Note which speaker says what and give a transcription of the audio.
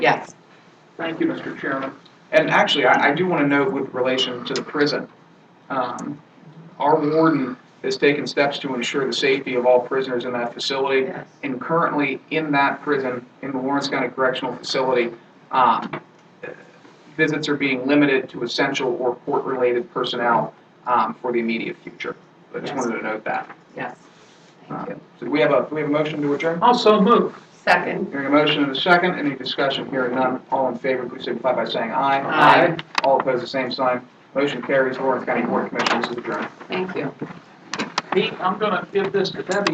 Speaker 1: Yes.
Speaker 2: Thank you, Mr. Chairman. And actually, I, I do want to note with relation to the prison, um, our warden has taken steps to ensure the safety of all prisoners in that facility.
Speaker 1: Yes.
Speaker 2: And currently, in that prison, in the Lawrence County Correctional Facility, um, visits are being limited to essential or court-related personnel, um, for the immediate future. I just
Speaker 1: Yes.
Speaker 2: wanted to note that.
Speaker 1: Yes. Thank you.
Speaker 2: Um, So do we have a, do we have a motion to adjourn?
Speaker 3: Also move.
Speaker 1: Second.
Speaker 2: Hearing a motion and a second, any discussion, hearing none, all in favor, please signify by saying aye.
Speaker 1: Aye.
Speaker 2: All opposed, the same sign. Motion carries, Lawrence County Board of Commissioners is adjourned.
Speaker 1: Thank you.
Speaker 3: Pete, I'm gonna give this to Debbie.